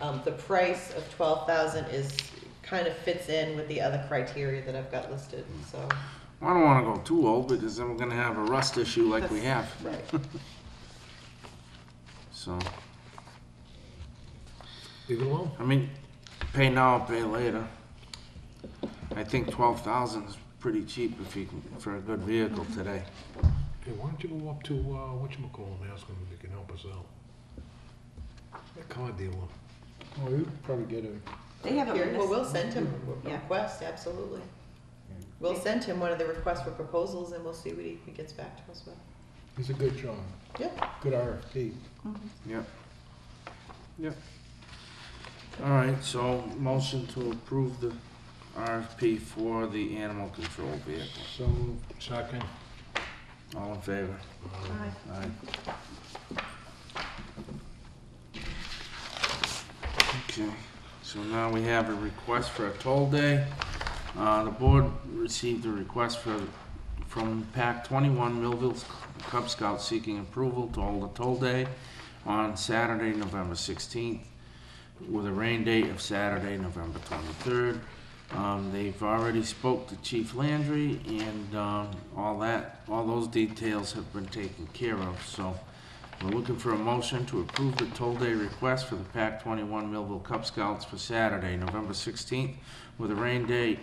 Um, the price of twelve thousand is, kind of fits in with the other criteria that I've got listed, so. I don't wanna go too old because then we're gonna have a rust issue like we have, Right. so, Leave it alone. I mean, pay now, pay later. I think twelve thousand is pretty cheap if you can, for a good vehicle today. Hey, why don't you go up to, uh, whatchamacallit, and ask him if he can help us out? That car dealer. Well, we would probably get a, They have a Here, Mm-hmm. well, municipal, we'll send him a Yeah. request, absolutely. We'll send him one of the requests for proposals and we'll see what he he gets back to us with. it's a good job, Yep, good RFP. Yep. Yep. All right, so motion to approve the RFP for the animal control vehicle. So moved. Second. All in favor? Uh, Aye. Okay, so now we have a request for a toll day. Uh, the board received a request for, from PAC twenty-one Millville Cub Scouts seeking approval to hold a toll day on Saturday, November sixteenth, with a rain date of Saturday, November twenty-third. Um, they've already spoke to Chief Landry and, um, all that, all those details have been taken care of, so. We're looking for a motion to approve the toll day request for the PAC twenty-one Millville Cub Scouts for Saturday, November sixteenth, with a rain date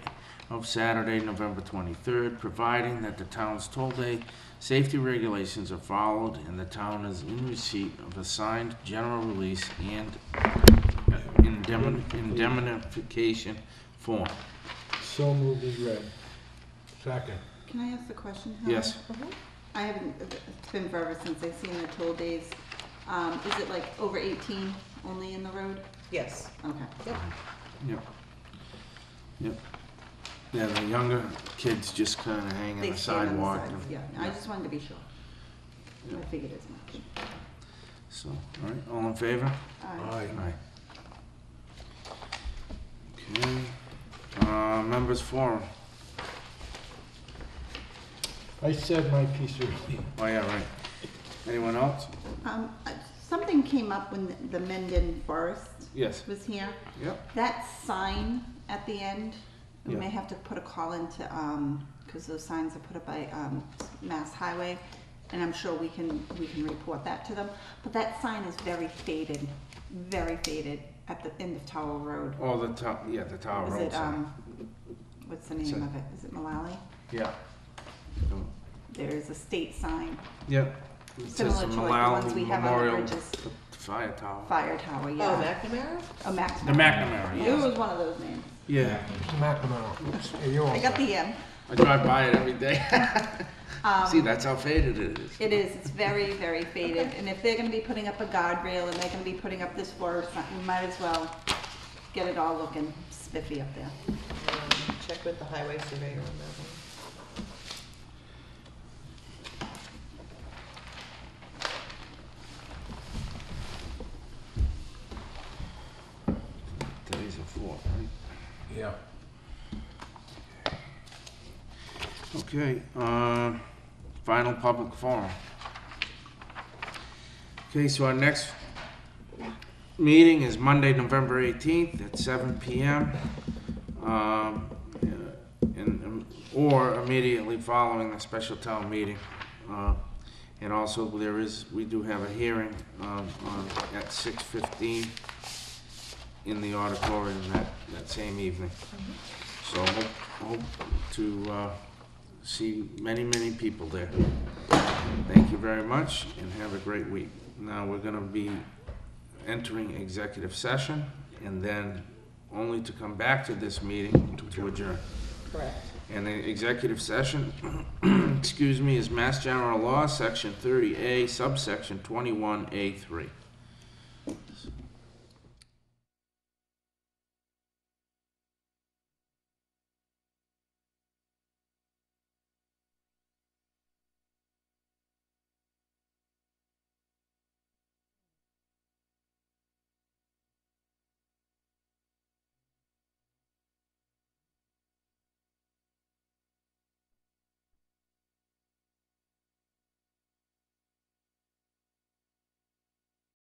of Saturday, November twenty-third, providing that the town's toll day safety regulations are followed and the town is in receipt of a signed general release and indemni- indemnification form. So moved is read. Second. can I ask a question? Helen? Yes, I haven't, it's been forever since I've seen the toll days. Um, is it like over eighteen only in the road? yes. Okay. Uh-huh. yep. Yep. Yeah, the younger kids just kinda hang on They the stand on sidewalk. sides, and- Yeah, I just wanted to be sure. Yeah. I figured as much. So, all right, all in favor? Aye. Aye. Aye. Okay, uh, members forum, I said my piece earlier. oh yeah, right. Anyone else? Um, uh, something came up when the Mendon Forest Yes. was here. Yep, That sign at the end, we Yeah. may have to put a call into, um 'cause cause those signs are put up by, um, Mass Highway. And I'm sure we can, we can report that to them, but that sign is very faded, very faded at the end of Tower Road. oh, the tower, yeah, the tower Is road it, sign, um, what's the name of it? Is it Malali? yeah. Um, There's a state sign, Yep. It says similar to like the Malal ones we have on the Memorial bridges, Fire tower. fire tower, Oh, yeah. McNamara? A Max. The McNamara, It yes. was one of those names. Yeah, Mr. McNamara. Hey, you're all I got set. the um, M. I drive by it every day. Um, See, that's how faded it is. It is, it's very, very faded, and if they're gonna be putting up a guardrail and they're gonna be putting up this forest, we might as well get it all looking spiffy up there. Um, Check with the highway surveyor on that one. Today's a four, right? Yeah. Okay, uh, final public forum. Okay, so our next meeting is Monday, November eighteenth at seven PM. Um, uh, and, um, or immediately following the special town meeting. Uh, And also there is, we do have a hearing, um, on, at six fifteen in the auditorium that, that same evening. So hope, hope to, uh, see many, many people there. Thank you very much and have a great week. Now, we're gonna be entering executive session and then only to come back to this meeting to adjourn. Correct. And the executive session, excuse me, is Mass General Law, Section thirty A, subsection twenty-one A three.